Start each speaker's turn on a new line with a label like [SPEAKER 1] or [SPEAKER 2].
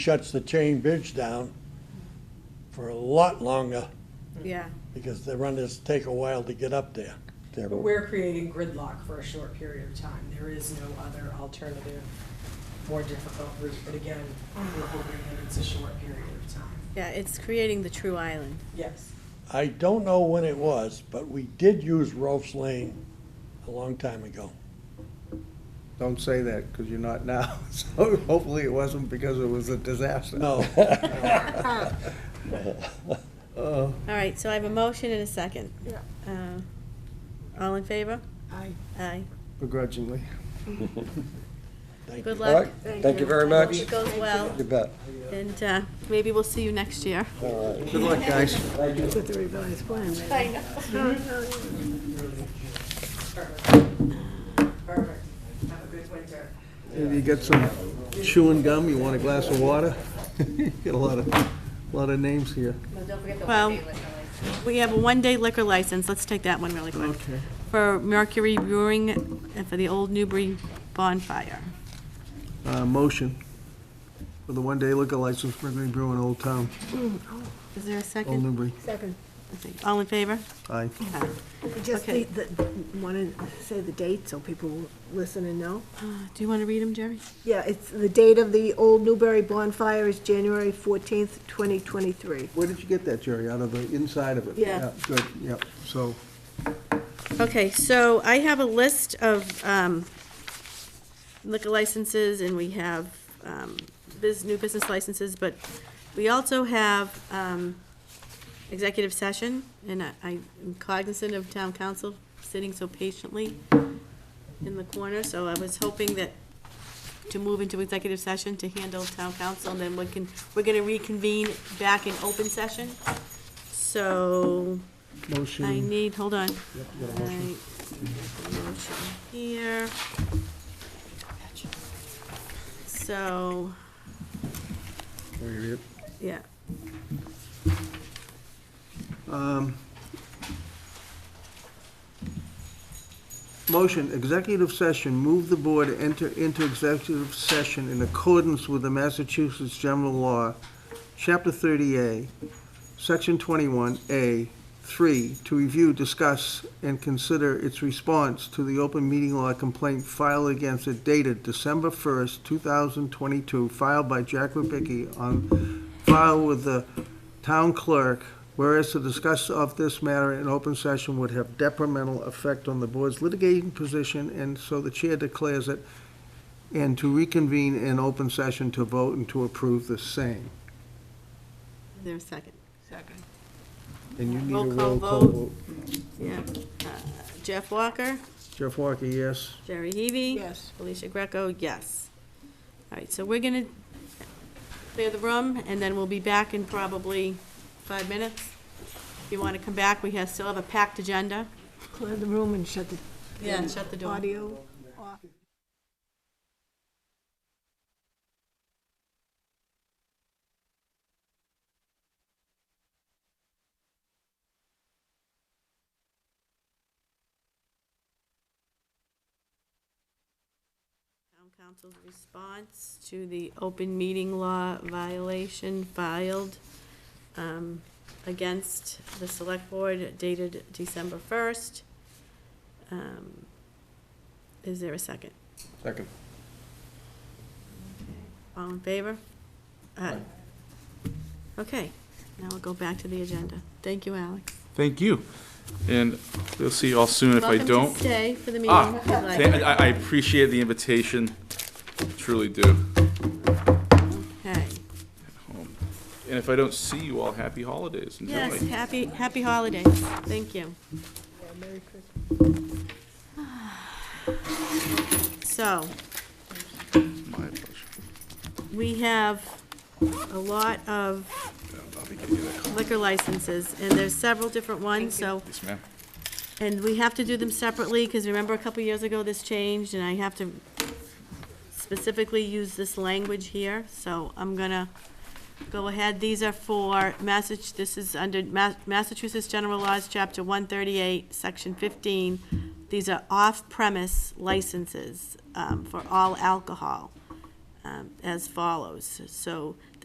[SPEAKER 1] shuts the chain bridge down for a lot longer
[SPEAKER 2] Mm. Yeah,
[SPEAKER 1] because the runners take a while to get up there. They're-
[SPEAKER 3] But we're creating gridlock for a short period of time. There is no other alternative, more difficult route. But again, we're hoping that it's a short period of time.
[SPEAKER 2] yeah, it's creating the true island.
[SPEAKER 3] Yes.
[SPEAKER 1] I don't know when it was, but we did use Rolfs Lane a long time ago.
[SPEAKER 4] Don't say that, because you're not now. So hopefully it wasn't because it was a disaster.
[SPEAKER 1] No.
[SPEAKER 4] Uh,
[SPEAKER 2] All right, so I have a motion and a second. Yeah. All in favor?
[SPEAKER 3] Aye.
[SPEAKER 2] Aye.
[SPEAKER 4] Begrudgingly.
[SPEAKER 1] Thank
[SPEAKER 2] Good
[SPEAKER 1] you.
[SPEAKER 2] luck.
[SPEAKER 5] Thank you very much.
[SPEAKER 2] Hope it goes well,
[SPEAKER 5] You bet.
[SPEAKER 2] and uh, maybe we'll see you next year.
[SPEAKER 5] All right.
[SPEAKER 4] Good luck, guys.
[SPEAKER 3] Perfect. Have a good winter.
[SPEAKER 4] If you get some chewing gum, you want a glass of water? You Get a lot of, lot of names here.
[SPEAKER 2] Well, we have a one-day liquor license, let's take that one really quick.
[SPEAKER 4] Okay.
[SPEAKER 2] For Mercury Brewing and for the Old Newbury Bonfire.
[SPEAKER 4] Uh, motion for the one-day liquor license for Gregory Brew in Old Town,
[SPEAKER 2] Is there a
[SPEAKER 4] Old
[SPEAKER 2] second?
[SPEAKER 4] Newbury.
[SPEAKER 6] Second.
[SPEAKER 2] All in favor?
[SPEAKER 4] Aye.
[SPEAKER 2] Aye.
[SPEAKER 6] Just
[SPEAKER 2] Okay.
[SPEAKER 6] the, want to say the date so people will listen and know?
[SPEAKER 2] Uh, Do you want to read them, Jerry?
[SPEAKER 6] Yeah, it's, the date of the Old Newberry bonfire is January 14th, 2023.
[SPEAKER 4] Where did you get that, Jerry? Out of the inside of it?
[SPEAKER 6] Yeah.
[SPEAKER 4] Good, yep. So
[SPEAKER 2] Okay, so I have a list of um, liquor licenses, and we have um, bus- new business licenses, but we also have um, executive session, and I- I'm cognizant of town council sitting so patiently in the corner, so I was hoping that, to move into executive session to handle town council, and then we can, we're gonna reconvene back in open session. So,
[SPEAKER 4] motion.
[SPEAKER 2] I need, hold on.
[SPEAKER 4] you got a motion.
[SPEAKER 2] I- motion Here. So,
[SPEAKER 4] Can we read it?
[SPEAKER 2] yeah,
[SPEAKER 4] Um, Motion, executive session, move the board to enter into executive session in accordance with the Massachusetts General Law, Chapter 30A, Section 21A, 3, to review, discuss, and consider its response to the open meeting law complaint filed against it dated December 1st, 2022, filed by Jack Rubicki on file with the town clerk, whereas the discussion of this matter in open session would have detrimental effect on the board's litigating position, and so the chair declares it, and to reconvene in open session to vote and to approve the same.
[SPEAKER 2] there's a second. Second.
[SPEAKER 4] And you need a
[SPEAKER 2] Roll call
[SPEAKER 4] roll call
[SPEAKER 2] vote.
[SPEAKER 4] vote.
[SPEAKER 2] Yeah. Uh, Jeff Walker,
[SPEAKER 4] Jeff Walker, yes.
[SPEAKER 2] Jerry Heavy.
[SPEAKER 6] Yes.
[SPEAKER 2] Alicia Greco, yes. All right, so we're gonna clear the room, and then we'll be back in probably five minutes. If you want to come back, we have, still have a packed agenda.
[SPEAKER 6] Clear the room and shut the
[SPEAKER 2] Yeah, shut the door.
[SPEAKER 6] audio off.
[SPEAKER 2] Town Council's response to the open meeting law violation filed um, against the Select Board dated December 1st. Um, Is there a second?
[SPEAKER 4] Second.
[SPEAKER 2] All in favor? Aye. Okay, now we'll go back to the agenda. Thank you, Alex.
[SPEAKER 7] Thank you. And we'll see you all soon if I
[SPEAKER 2] Welcome
[SPEAKER 7] don't.
[SPEAKER 2] to stay for the meeting.
[SPEAKER 7] Ah,
[SPEAKER 2] if you'd like.
[SPEAKER 7] thank- I I appreciate the invitation, truly do.
[SPEAKER 2] Okay.
[SPEAKER 7] And if I don't see you all, happy holidays. Enjoy.
[SPEAKER 2] Yes, happy, happy holidays. Thank you. So,
[SPEAKER 7] My pleasure.
[SPEAKER 2] we have a lot of
[SPEAKER 7] I'll be getting you that.
[SPEAKER 2] liquor licenses, and there's several different ones, so,
[SPEAKER 7] Yes, ma'am.
[SPEAKER 2] and we have to do them separately, because remember a couple years ago this changed, and I have to specifically use this language here, so I'm gonna go ahead. These are for Massach, this is under Ma- Massachusetts General Laws, Chapter 138, Section 15. These are off-premise licenses um, for all alcohol. um, as follows. So